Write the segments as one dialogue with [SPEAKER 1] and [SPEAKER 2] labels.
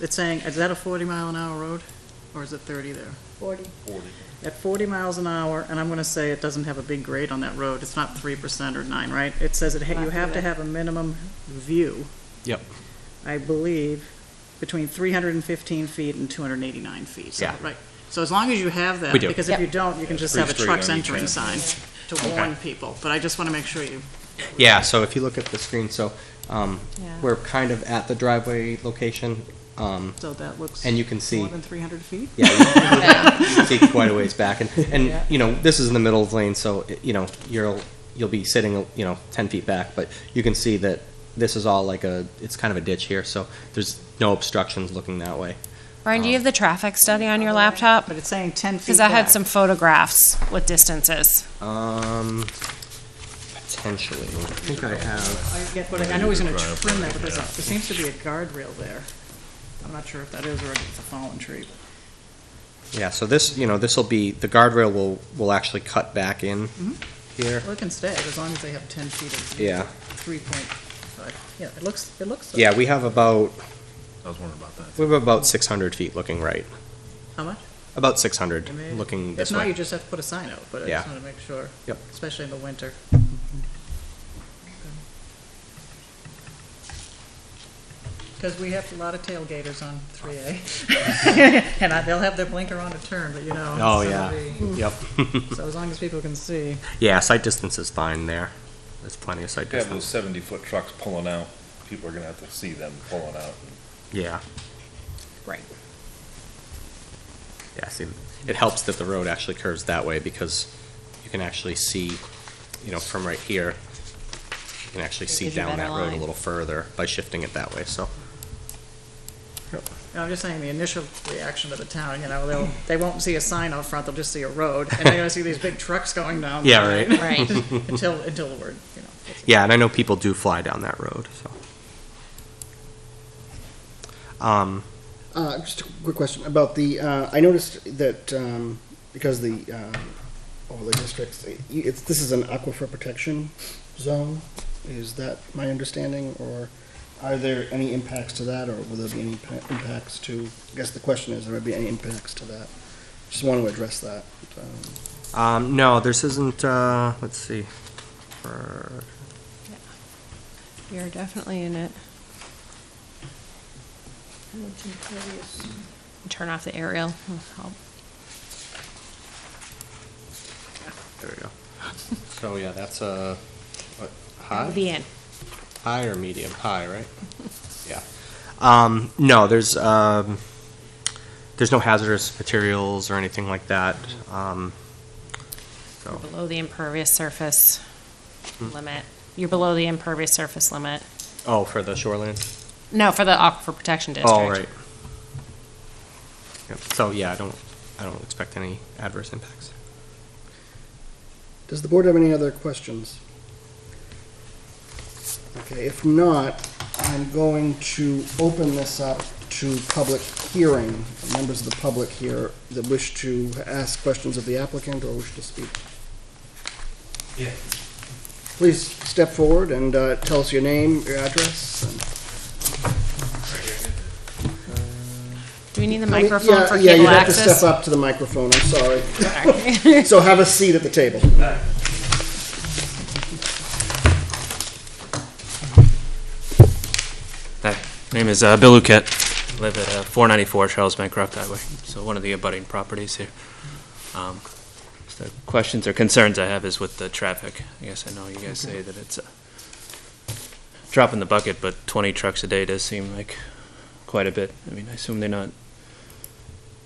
[SPEAKER 1] it's saying, is that a forty mile an hour road, or is it thirty there?
[SPEAKER 2] Forty.
[SPEAKER 1] At forty miles an hour, and I'm gonna say it doesn't have a big grade on that road, it's not three percent or nine, right? It says it, ha- you have to have a minimum view,
[SPEAKER 3] Yep.
[SPEAKER 1] I believe, between three hundred and fifteen feet and two hundred and eighty-nine feet, so,
[SPEAKER 3] Yeah.
[SPEAKER 1] right? So as long as you have that,
[SPEAKER 3] We do.
[SPEAKER 1] because if you
[SPEAKER 2] Yep.
[SPEAKER 1] don't, you can just have a
[SPEAKER 4] Pretty
[SPEAKER 1] trucks
[SPEAKER 4] straight on each
[SPEAKER 1] entering
[SPEAKER 4] end.
[SPEAKER 1] sign to
[SPEAKER 3] Okay.
[SPEAKER 1] warn people, but I just wanna make sure you,
[SPEAKER 3] Yeah, so if you look at the screen, so um,
[SPEAKER 2] Yeah.
[SPEAKER 3] we're kind of at the driveway location. um,
[SPEAKER 1] so that looks.
[SPEAKER 3] And you can see-
[SPEAKER 1] More than three hundred feet?
[SPEAKER 3] Yeah, you- you can see quite a ways back. And, and, you know, this is in the middle of the lane, so, it- you know, you'll, you'll be sitting, you know, 10 feet back, but you can see that this is all like a, it's kind of a ditch here, so there's no obstructions looking that way.
[SPEAKER 5] Brian, do you have the traffic study on your laptop?
[SPEAKER 1] But it's saying ten feet
[SPEAKER 5] Because I had
[SPEAKER 1] back.
[SPEAKER 5] some photographs with distances.
[SPEAKER 3] Um, potentially. I think I have.
[SPEAKER 1] I get what, I I know he's gonna trim that, but there's, a- there seems to be a guardrail there. I'm not sure if that is or if it's a fallen tree.
[SPEAKER 3] Yeah, so this, you know, this will be, the guardrail will, will actually cut back in
[SPEAKER 1] Mhm.
[SPEAKER 3] here.
[SPEAKER 1] Well, it can stay, as long as they have ten feet of.
[SPEAKER 3] Yeah.
[SPEAKER 1] Three point five, yeah, it looks, it looks.
[SPEAKER 3] Yeah, we have about,
[SPEAKER 4] I was wondering about that.
[SPEAKER 3] we have about 600 feet looking right.
[SPEAKER 1] How much?
[SPEAKER 3] About 600
[SPEAKER 1] I mean,
[SPEAKER 3] looking this
[SPEAKER 1] If not, you
[SPEAKER 3] way.
[SPEAKER 1] just have to put a sign out, but I
[SPEAKER 3] Yeah.
[SPEAKER 1] just wanna make sure.
[SPEAKER 3] Yep.
[SPEAKER 1] Especially in the winter. Cause we have a lot of tailgaters on three A. And I, they'll have their blinker on to turn, but you know.
[SPEAKER 3] Oh,
[SPEAKER 1] so
[SPEAKER 3] yeah.
[SPEAKER 1] the-
[SPEAKER 3] Yep.
[SPEAKER 1] So as long as people can see.
[SPEAKER 3] Yeah, sight distance is fine there. There's plenty of sight
[SPEAKER 4] If you have those
[SPEAKER 3] distance.
[SPEAKER 4] seventy-foot trucks pulling out, people are gonna have to see them pulling out.
[SPEAKER 3] Yeah,
[SPEAKER 5] Right.
[SPEAKER 3] yeah, see, it helps that the road actually curves that way because you can actually see, you know, from right here, you can actually
[SPEAKER 2] It
[SPEAKER 3] see
[SPEAKER 2] gives you
[SPEAKER 3] down
[SPEAKER 2] better
[SPEAKER 3] that road a
[SPEAKER 2] line.
[SPEAKER 3] little further by shifting it that way, so.
[SPEAKER 1] No, I'm just saying the initial reaction to the town, you know, they'll, they won't see a sign out front, they'll just see a road, and they're gonna see these big trucks going down.
[SPEAKER 3] Yeah, right.
[SPEAKER 2] Right.
[SPEAKER 1] Until, until the word, you know. gets-
[SPEAKER 3] Yeah, and I know people do fly down that road, so. Um,
[SPEAKER 6] Uh, just a quick question about the. Uh, I noticed that um, because the uh, all the districts, it's this is an aquifer protection zone. Is that my understanding, or are there any impacts to that, or will there be any impa- impacts to? I guess the question is, there would be any impacts to that? Just want to address that. Um,
[SPEAKER 3] um, no, this isn't, uh, let's see. For-
[SPEAKER 5] You're definitely in it. Turn off the aerial. I'll help.
[SPEAKER 3] There we go. So, yeah, that's a, what, high?
[SPEAKER 5] It'll be in.
[SPEAKER 3] High or medium? High, right? Yeah. Um, no, there's, um, there's no hazardous materials or anything like that. Um, so,
[SPEAKER 5] Below the impervious surface limit. You're below the impervious surface limit.
[SPEAKER 3] oh, for the shoreline?
[SPEAKER 5] No, for the aquifer protection district.
[SPEAKER 3] Oh, right. Yep, so, yeah, I don't, I don't expect any adverse impacts.
[SPEAKER 6] Does the board have any other questions? Okay, if not, I'm going to open this up to public hearing. Members of the public here that wish to ask questions of the applicant or wish to speak. Please step forward and uh, tell us your name, your address. and-
[SPEAKER 5] Do we need the
[SPEAKER 6] I mean,
[SPEAKER 5] microphone
[SPEAKER 6] yeah,
[SPEAKER 5] for
[SPEAKER 6] Yeah, you
[SPEAKER 5] cable
[SPEAKER 6] have to
[SPEAKER 5] access?
[SPEAKER 6] step up to the microphone, I'm sorry. So have a seat at the table.
[SPEAKER 7] Hi, my name is uh, Bill Luquette. I live at uh, 494 Charles Bancroft Highway, so one of the abutting properties here. Um, so The questions or concerns I have is with the traffic. I guess I know you guys say that it's a drop in the bucket, but 20 trucks a day does seem like quite a bit. I mean, I assume they're not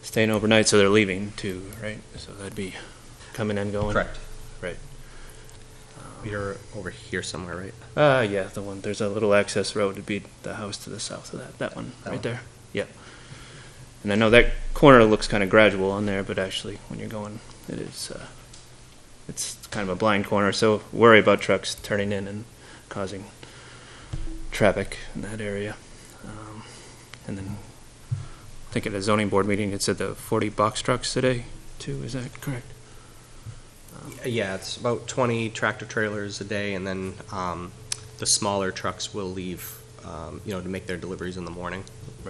[SPEAKER 7] staying overnight, so they're leaving too, right? So that'd be coming and going. Right.
[SPEAKER 3] You're over here somewhere, right?
[SPEAKER 7] Uh, yeah, the one, there's a little access road to be the house to the south of that, that one,
[SPEAKER 3] That one.
[SPEAKER 7] right there, yep. And I know that corner looks kind of gradual on there, but actually, when you're going, it is, uh, it's kind of a blind corner, so worry about trucks turning in and causing traffic in that area. Um, And then, I think at a zoning board meeting, it said the forty box trucks today, too, is that correct?
[SPEAKER 3] Yeah, it's about 20 tractor trailers a day, and then um, the smaller trucks will leave, um, you know, to make their deliveries in the morning.